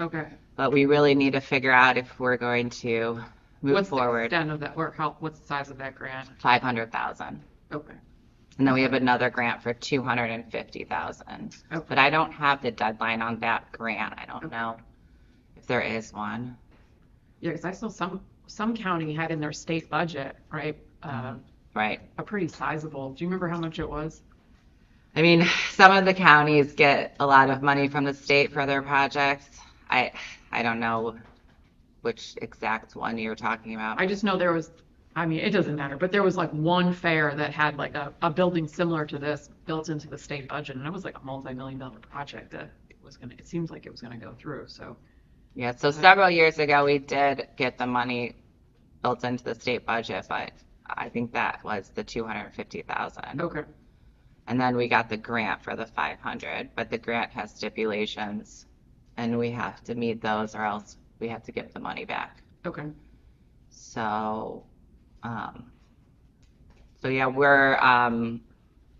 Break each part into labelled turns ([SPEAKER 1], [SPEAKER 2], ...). [SPEAKER 1] Okay.
[SPEAKER 2] But we really need to figure out if we're going to move
[SPEAKER 1] What's the
[SPEAKER 2] forward
[SPEAKER 1] extent of that, or how, what's the size of that grant?
[SPEAKER 2] five hundred thousand.
[SPEAKER 1] Okay.
[SPEAKER 2] And then we have another grant for two hundred and fifty thousand.
[SPEAKER 1] Okay.
[SPEAKER 2] But I don't have the deadline on that grant. I don't
[SPEAKER 1] Okay.
[SPEAKER 2] know if there is one.
[SPEAKER 1] Yeah, because I saw some, some county had in their state budget, right,
[SPEAKER 2] Mm-hmm.
[SPEAKER 1] um,
[SPEAKER 2] Right.
[SPEAKER 1] a pretty sizable, do you remember how much it was?
[SPEAKER 2] I mean, some of the counties get a lot of money from the state for their projects. I, I don't know which exact one you're talking about.
[SPEAKER 1] I just know there was, I mean, it doesn't matter, but there was like one fair that had like a, a building similar to this built into the state budget, and it was like a multi-million dollar project that was gonna, it seems like it was gonna go through, so.
[SPEAKER 2] Yeah, so several years ago, we did get the money built into the state budget, but I think that was the two hundred and fifty thousand.
[SPEAKER 1] Okay,
[SPEAKER 2] And then we got the grant for the five hundred, but the grant has stipulations and we have to meet those or else we have to give the money back.
[SPEAKER 1] okay,
[SPEAKER 2] So, um, so yeah, we're, um,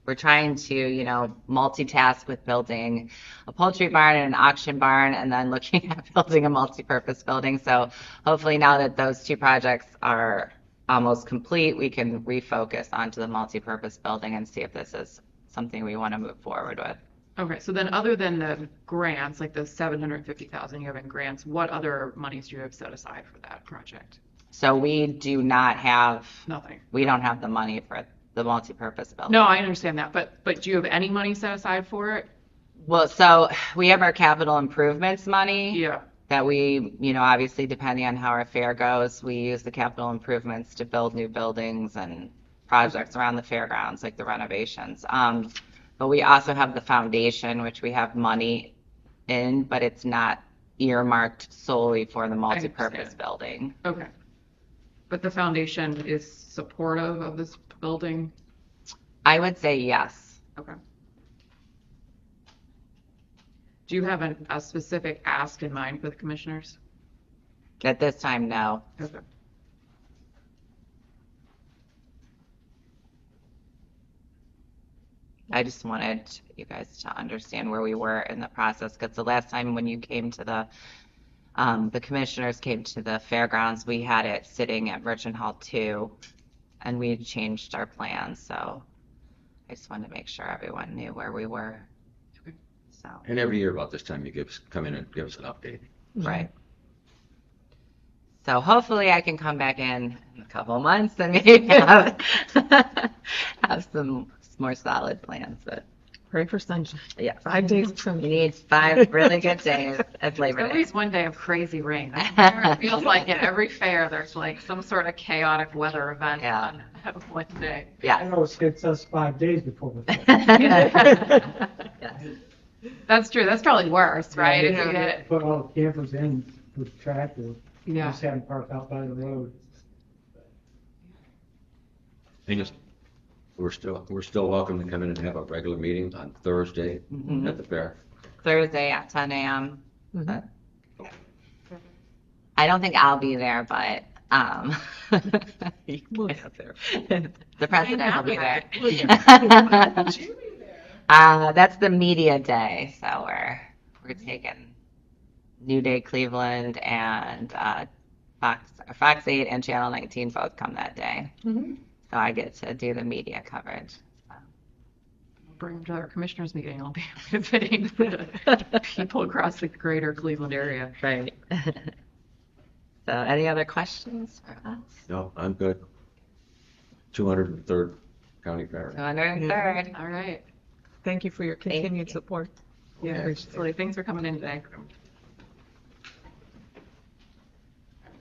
[SPEAKER 2] we're trying to, you know, multitask with building a poultry barn and an auction barn and then looking at building a multi-purpose building. So hopefully now that those two projects are almost complete, we can refocus onto the multi-purpose building and see if this is something we want to move forward with.
[SPEAKER 1] okay, so then other than the grants, like the seven hundred and fifty thousand you have in grants, what other monies do you have set aside for that project?
[SPEAKER 2] So we do not have,
[SPEAKER 1] Nothing.
[SPEAKER 2] we don't have the money for the multi-purpose building.
[SPEAKER 1] No, I understand that, but, but do you have any money set aside for it?
[SPEAKER 2] Well, so we have our capital improvements money
[SPEAKER 1] Yeah,
[SPEAKER 2] that we, you know, obviously depending on how our fair goes, we use the capital improvements to build new buildings and projects around the fairgrounds, like the renovations. Um, but we also have the foundation, which we have money in, but it's not earmarked solely for the multipurpose
[SPEAKER 1] understand.
[SPEAKER 2] building.
[SPEAKER 1] okay. But the foundation is supportive of this building?
[SPEAKER 2] I would say yes.
[SPEAKER 1] Okay. Do you have an, a specific ask in mind for the commissioners?
[SPEAKER 2] At this time, no.
[SPEAKER 1] Okay.
[SPEAKER 2] I just wanted you guys to understand where we were in the process, because the last time when you came to the, um, the commissioners came to the fairgrounds, we had it sitting at Merchant Hall two, and we had changed our plans, so I just wanted to make sure everyone knew where we were.
[SPEAKER 1] Okay.
[SPEAKER 2] So,
[SPEAKER 3] And every year about this time, you give us, come in and give us an update.
[SPEAKER 2] right. So hopefully I can come back in in a couple of months and maybe have, have some more solid plans, but
[SPEAKER 4] Pray for sunshine.
[SPEAKER 2] yeah.
[SPEAKER 4] Five days from
[SPEAKER 2] We need five really good days at Labor
[SPEAKER 1] At
[SPEAKER 2] Day.
[SPEAKER 1] least one day of crazy rain. It feels like at every fair, there's like some sort of chaotic weather event
[SPEAKER 2] Yeah.
[SPEAKER 1] on one day.
[SPEAKER 2] Yeah.
[SPEAKER 5] That always hits us five days before the. vote.
[SPEAKER 1] That's true. That's probably worse, right? If you get,
[SPEAKER 5] Put all the campers in with tractor,
[SPEAKER 1] yeah.
[SPEAKER 5] just have them park out by the road.
[SPEAKER 3] Thing is, we're still, we're still welcome to come in and have a regular meeting on Thursday
[SPEAKER 2] Mhm.
[SPEAKER 1] Mm-hmm.
[SPEAKER 3] at the fair.
[SPEAKER 2] Thursday at 10 a.m.
[SPEAKER 4] Mhm.
[SPEAKER 2] I don't think I'll be there, but um, you
[SPEAKER 4] We'll
[SPEAKER 2] guys- the president will be there.
[SPEAKER 1] We'll be
[SPEAKER 2] uh, that's the media day, so we're we're taking New Day Cleveland and uh, Fox Fox 8 and Channel 19 both come that day,
[SPEAKER 6] Mm-hmm.
[SPEAKER 4] Mhm.
[SPEAKER 2] so I get to do the media coverage.
[SPEAKER 1] Bring them to our commissioners meeting. I'll be visiting people across the greater Cleveland area.
[SPEAKER 2] Right. so, any other questions for us?
[SPEAKER 3] No, I'm good. 203rd County Fair.
[SPEAKER 2] 203rd.
[SPEAKER 1] All right.
[SPEAKER 4] Thank you for your
[SPEAKER 2] you.
[SPEAKER 4] continued support. We
[SPEAKER 1] Yeah,
[SPEAKER 4] appreciate it.
[SPEAKER 1] absolutely. Thanks for coming in today.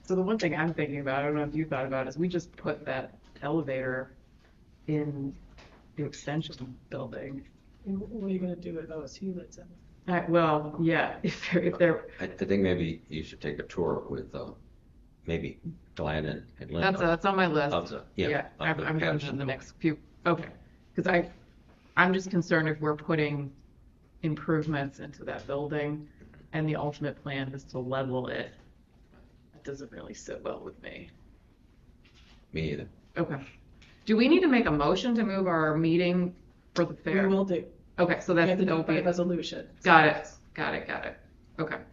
[SPEAKER 1] So the one thing I'm thinking about, I don't know if you thought about, is we just put that elevator in the extension building.
[SPEAKER 6] And wh- What are you gonna do with OSU that's in?
[SPEAKER 1] Uh, well, yeah, if they're, if they're,
[SPEAKER 3] I, I think maybe you should take a tour with, uh, maybe Glenn and and Linda.
[SPEAKER 1] that's, that's on my
[SPEAKER 3] Of
[SPEAKER 1] list.
[SPEAKER 3] the-
[SPEAKER 1] Yeah,
[SPEAKER 3] of
[SPEAKER 1] I'm,
[SPEAKER 3] the
[SPEAKER 1] I'm going to
[SPEAKER 3] Patterson
[SPEAKER 1] the
[SPEAKER 3] Building.
[SPEAKER 1] next few, okay. Because I, I'm just concerned if we're putting improvements into that building and the ultimate plan is to level it. That doesn't really sit well with me.
[SPEAKER 3] Me either.
[SPEAKER 1] Okay. Do we need to make a motion to move our meeting for the
[SPEAKER 6] We
[SPEAKER 1] fair?
[SPEAKER 6] will do.
[SPEAKER 1] Okay, so
[SPEAKER 6] We
[SPEAKER 1] that's
[SPEAKER 6] have to
[SPEAKER 1] the
[SPEAKER 6] do it by
[SPEAKER 1] open.
[SPEAKER 6] resolution.
[SPEAKER 1] Got it, got it, got it. Okay.